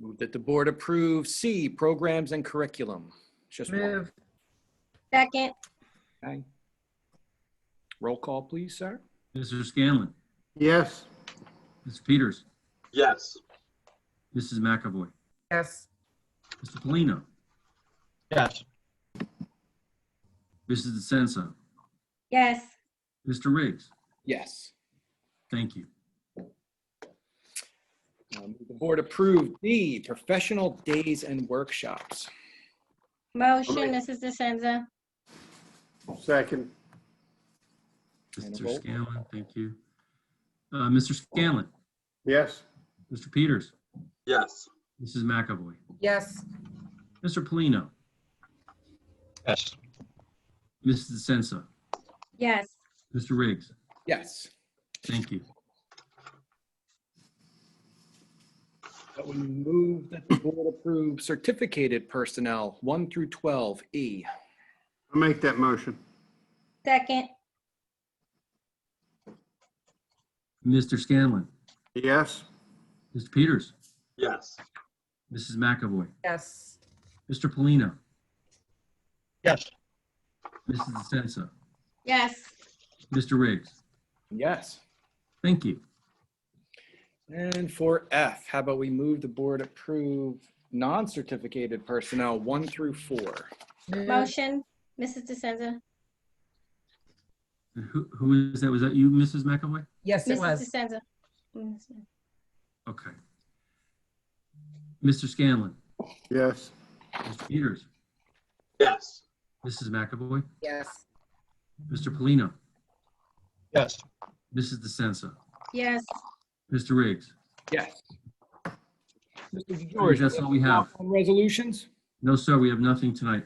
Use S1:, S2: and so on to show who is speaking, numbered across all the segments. S1: Move that the board approve C, programs and curriculum. It's Just one.
S2: Move,
S3: Second,
S1: Okay. Roll call, please, sir.
S4: Mr. Scanlon,
S5: yes,
S4: Mr. Peters,
S6: yes,
S4: Mrs. McAvoy,
S2: yes,
S4: Mr. Polino,
S7: yes,
S4: Mrs. DeSenza,
S3: yes,
S4: Mr. Riggs.
S1: Yes.
S4: Thank you.
S1: Um, The board approve D, professional days and workshops.
S3: motion, Mrs. DeSenza.
S5: second,
S1: And a
S4: Mr.
S1: roll.
S4: Scanlon, thank you. Uh, Mr. Scanlon,
S5: yes,
S4: Mr. Peters,
S6: yes,
S4: Mrs. McAvoy,
S2: yes,
S4: Mr. Polino,
S7: yes,
S4: Mrs. DeSenza,
S3: Yes,
S4: Mr. Riggs.
S1: Yes.
S4: Thank you.
S1: That we move that the board approve certificated personnel, 1 through 12, E.
S5: I'll make that motion.
S3: second,
S4: Mr. Scanlon,
S5: Yes,
S4: Mr. Peters,
S6: yes,
S4: Mrs. McAvoy,
S2: yes,
S4: Mr. Polino,
S7: yes,
S4: Mrs. DeSenza,
S3: yes,
S4: Mr. Riggs.
S1: Yes.
S4: Thank you.
S1: And for F, how about we move the board approve non-certificated personnel, 1 through 4?
S2: move,
S3: motion, Mrs. DeSenza.
S4: Who, who is that? Was that you, Mrs. McAvoy?
S2: yes, it
S3: Mrs.
S2: was,
S3: DeSenza.
S4: Okay. Mr. Scanlon,
S5: yes,
S4: Mr. Peters,
S6: yes,
S4: Mrs. McAvoy,
S2: yes,
S4: Mr. Polino,
S7: yes,
S4: Mrs. DeSensa,
S3: Yes,
S4: Mr. Riggs.
S1: Yes. Mr.
S4: George,
S1: George,
S4: that's all we have.
S1: on Resolutions?
S4: No, sir, we have nothing tonight.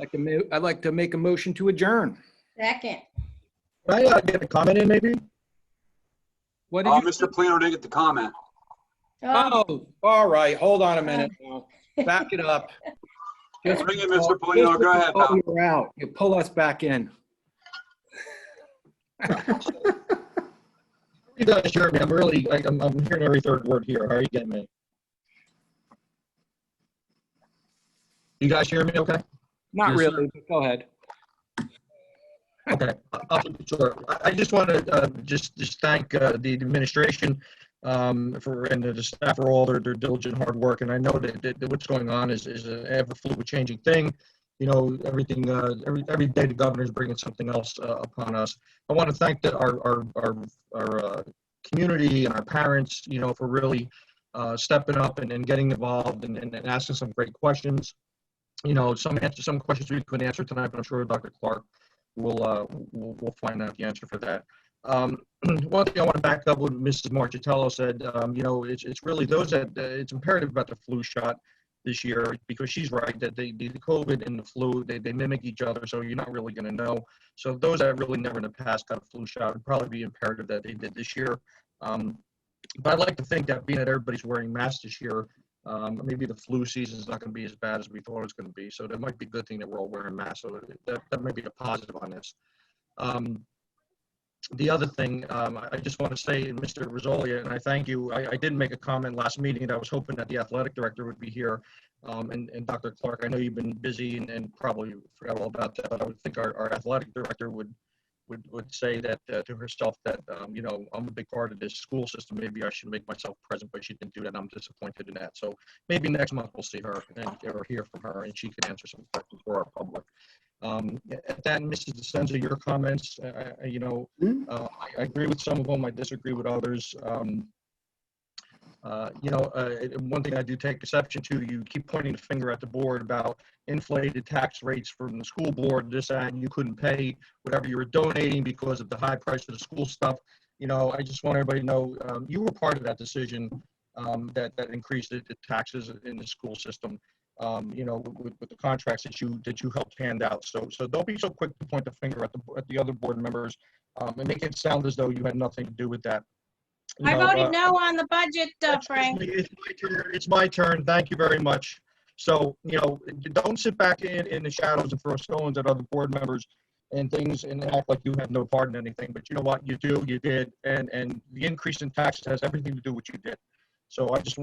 S1: Like to mo- I'd like to make a motion to adjourn.
S3: second,
S7: Can I uh, get a comment in maybe?
S1: What
S6: oh,
S1: did you?
S6: Mr. Plino didn't get the comment,
S3: oh,
S1: Oh, all right, hold on a minute now. Back it up. Just
S6: Bring it, Mr. Polino. Go ahead,
S1: before
S6: pal.
S1: You're out. You pull us back in.
S7: You guys hear me? I'm really, like, I'm, I'm hearing every third word here. How are you getting me? You guys hear me okay?
S1: Not
S4: Yes, sir.
S1: really, but go ahead.
S7: Okay, I'll keep it short. I- I just want to uh, just just thank uh, the administration um, for and the staff for all their, their diligent hard work. And I know that, that what's going on is is an ever fluid changing thing. You know, everything uh, every every day the governor's bringing something else uh, upon us. I want to thank the, our our our, our uh, community and our parents. You know, for really uh, stepping up and, and getting involved and, and, and asking some great questions. You know, some answer some questions we couldn't answer tonight, but I'm sure Dr. Clark we'll, uh, we'll, we'll find out the answer for that. Um, one thing I want to back up what Mrs. Marchitello said, um, you know, it's, it's really those that, uh, it's imperative about the flu shot this year because she's right that they, the COVID and the flu, they, they mimic each other. So you're not really going to know. So those that really never in the past got a flu shot would probably be imperative that they did this year. Um, but I'd like to think that being that everybody's wearing masks this year, um, maybe the flu season is not going to be as bad as we thought it was going to be. So that might be a good thing that we're all wearing masks. So that, that might be a positive on this. Um, the other thing, um, I- I just want to say, Mr. Rosolia, and I thank you. I, I did make a comment last meeting that I was hoping that the athletic director would be here. Um, and, and Dr. Clark, I know you've been busy and, and probably forgot all about that, but I would think our, our athletic director would would, would say that uh, to herself that, um, you know, I'm a big part of this school system. Maybe I should make myself present, but she didn't do that. and I'm disappointed in that. So maybe next month we'll see her and or hear from her and she can answer some questions for our public. Um, at that, Mrs. DeSenza, your comments, uh, uh, you know,
S5: Hmm.
S7: uh, I- I agree with some of them. I disagree with others. Um, uh, you know, uh, it- one thing I do take exception to, you keep pointing the finger at the board about inflated tax rates from the school board, this, that, and you couldn't pay whatever you were donating because of the high price of the school stuff. You know, I just want everybody to know, um, you were part of that decision, um, that, that increased the the taxes in the school system. Um, you know, with, with the contracts that you, that you helped hand out. So, so don't be so quick to point the finger at the, at the other board members, um, and make it sound as though you had nothing to do with that. You
S3: I
S7: know, uh,
S3: voted no on the budget, uh,
S7: Excuse
S3: Frank.
S7: me, It's my turn. It's my turn. Thank you very much. So, you know, don't sit back in, in the shadows and throw stones at other board members and things and act like you have no part in anything. But you know what? You do, you did. And, and the increase in taxes has everything to do with what you did. So I just